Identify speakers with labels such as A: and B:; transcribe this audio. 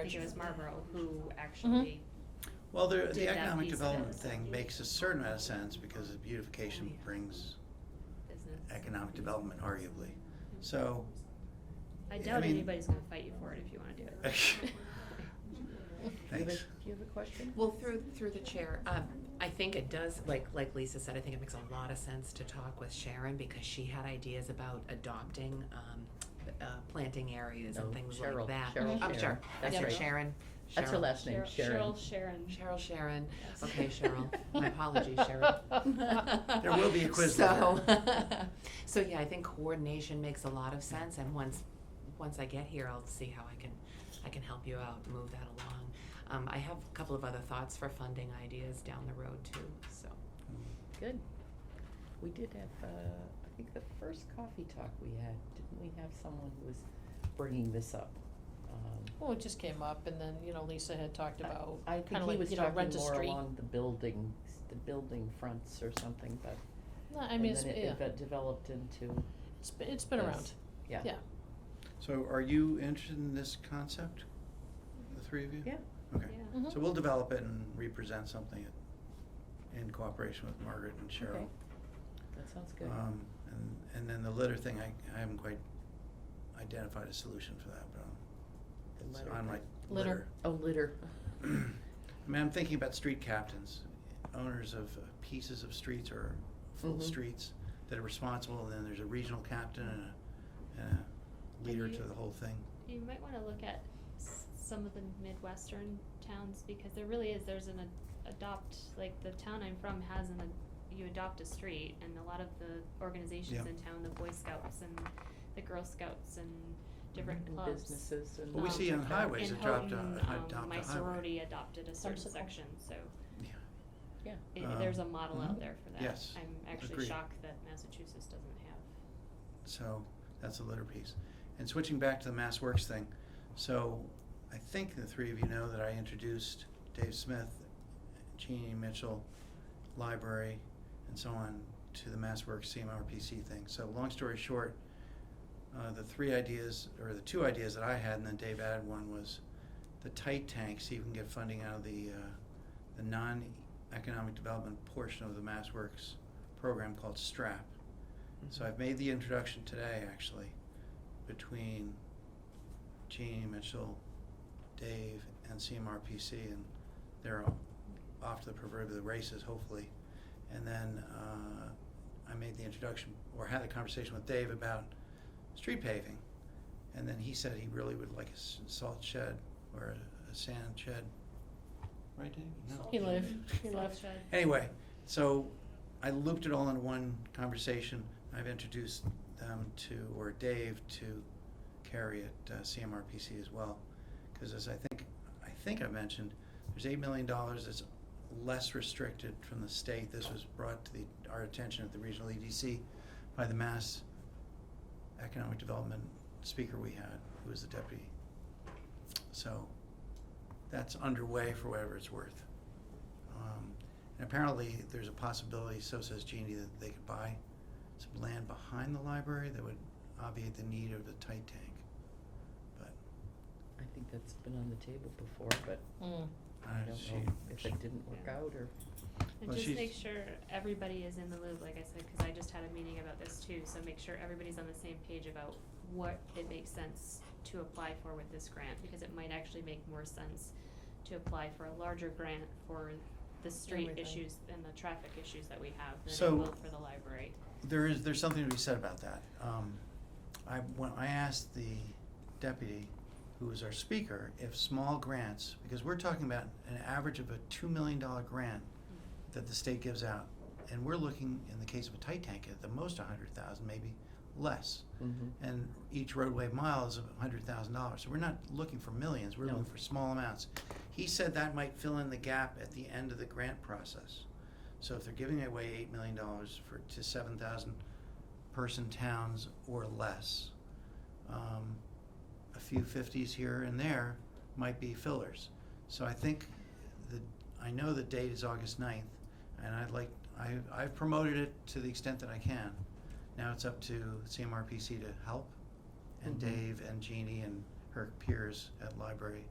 A: I think it was Marlboro who actually,
B: Well, the,
A: did
B: the
A: that
B: economic
A: piece of it.
B: development thing makes a certain amount of sense because the beautification brings
A: business.
B: economic development arguably. So,
A: I
B: I
A: doubt
B: mean-
A: anybody's gonna fight you for it if you wanna do it.
B: thanks.
C: Do you have a question?
D: Well, through, through the chair, um, I think it does, like, like Lisa said, I think it makes a lot of sense to talk with Sharon because she had ideas about adopting, um, uh, planting areas and
C: No,
D: things
C: Cheryl,
D: like that. Oh,
C: Cheryl,
D: I'm
C: Sharon.
D: sure,
C: That's
D: that's her,
C: her.
D: Sharon.
C: That's her
D: Cheryl.
C: last name, Sharon.
A: Cheryl Sharon.
D: Cheryl, Sharon.
A: Yes.
D: Okay, Cheryl. My apologies, Cheryl.
B: There will be a quiz
D: So, so yeah, I think coordination makes a lot of sense, and once, once I get here, I'll see how I can, I can help you out, move that along. Um, I have a couple of other thoughts for funding ideas down the road too, so.
C: Good. We did have, uh, I think the first coffee talk we had, didn't we have someone who was bringing this up? Um,
E: Well, it just came up and then, you know, Lisa had talked about
C: I
E: kind
C: think
E: of
C: he
E: like,
C: was
E: you know,
C: talking
E: rent a
C: more
E: street.
C: along the buildings, the building fronts or something, but,
E: No, I
C: and
E: mean,
C: then
E: it's,
C: it-
E: yeah,
C: it got developed into,
E: it's, been- it's been
C: Yes.
E: around,
C: yeah.
E: yeah.
B: So are you interested in this concept, the three of you?
C: Yeah.
B: Okay.
A: Yeah.
E: Mhm.
B: So we'll develop it and represent something in cooperation with Margaret and Cheryl.
C: Okay. That sounds good.
B: Um, and, and then the litter thing, I, I haven't quite identified a solution for that, but
C: The
B: um, it's
C: litter
B: on my
C: thing.
E: Litter.
B: litter.
C: Oh, litter.
B: I mean, I'm thinking about street captains, owners of uh, pieces of streets or full
A: Mm-hmm.
C: Mhm.
B: streets that are responsible, and then there's a regional captain and a, and a leader
A: And
B: to
A: you-
B: the whole thing.
A: You might wanna look at s- some of the Midwestern towns, because there really is, there's an ad- adopt, like, the town I'm from has an, ad- you adopt a street, and a lot of the
B: Yeah.
A: organizations in town, the Boy Scouts and the Girl Scouts and different
C: And
A: clubs.
C: Businesses and.
B: Well, we
A: Um,
B: see on
C: Okay.
B: highways
A: in
B: it dropped, a-
A: Houghton,
B: hi-
A: um,
B: adopt
A: My
B: a highway.
A: sorority adopted a certain
E: Popsicle.
A: section, so
B: Yeah.
C: Yeah.
A: i- there's a
B: Um,
A: model
B: mhm.
A: out there for that.
B: Yes,
A: I'm actually
B: agreed.
A: shocked that Massachusetts doesn't have.
B: So that's the litter piece. And switching back to the Mass Works thing, so I think the three of you know that I introduced Dave Smith, Jeannie Mitchell, Library, and so on to the Mass Works CMRPC thing. So long story short, uh, the three ideas, or the two ideas that I had, and then Dave added one, was the tight tank, see if we can get funding out of the, uh, the non-economic development portion of the Mass Works program called STRAP. So I've made the introduction today, actually, between Jeannie Mitchell, Dave, and CMRPC, and they're o- off to the proverbial races, hopefully. And then uh, I made the introduction, or had a conversation with Dave about street paving. And then he said he really would like a s- salt shed or a- a sand shed. Right, Dave? No.
E: He lived, he left.
A: Salt shed.
B: Anyway, so I looped it all into one conversation. I've introduced them to, or Dave to Carrie at uh, CMRPC as well. Because as I think, I think I mentioned, there's eight million dollars that's less restricted from the state. This was brought to the, our attention at the regional EDC by the Mass Economic Development speaker we had, who was the deputy. So that's underway for whatever it's worth. Um, and apparently, there's a possibility, so says Jeannie, that they could buy some land behind the library that would obviate the need of the tight tank. But
C: I think that's been on the table before, but
E: Mm.
B: I
C: I don't
B: uh, she,
C: know if
B: she-
C: it didn't work
A: Yeah.
C: out or.
A: And
B: Well,
A: just
B: she's-
A: make sure everybody is in the loop, like I said, cause I just had a meeting about this too, so make sure everybody's on the same page about what it makes sense to apply for with this grant, because it might actually make more sense to apply for a larger grant for the street
E: Everything.
A: issues and the traffic issues that we have
B: So-
A: than it will for the library.
B: there is there's something to be said about that. Um, I when I asked the deputy, who was our speaker, if small grants, because we're talking about an average of a two million dollar grant that the state gives out, and we're looking in the case of a tight tank at the most a hundred thousand, maybe less. and each roadway mile is a hundred thousand dollars. So we're not looking for millions, we're
C: No.
B: looking for small amounts. He said that might fill in the gap at the end of the grant process. So if they're giving away eight million dollars for, to seven thousand person towns or less, um, a few fifties here and there might be fillers. So I think the, I know the date is August 9th, and I'd like, I, I've promoted it to the extent that I can. Now it's up to CMRPC to help, and
C: Mhm.
B: Dave and Jeannie and her peers at library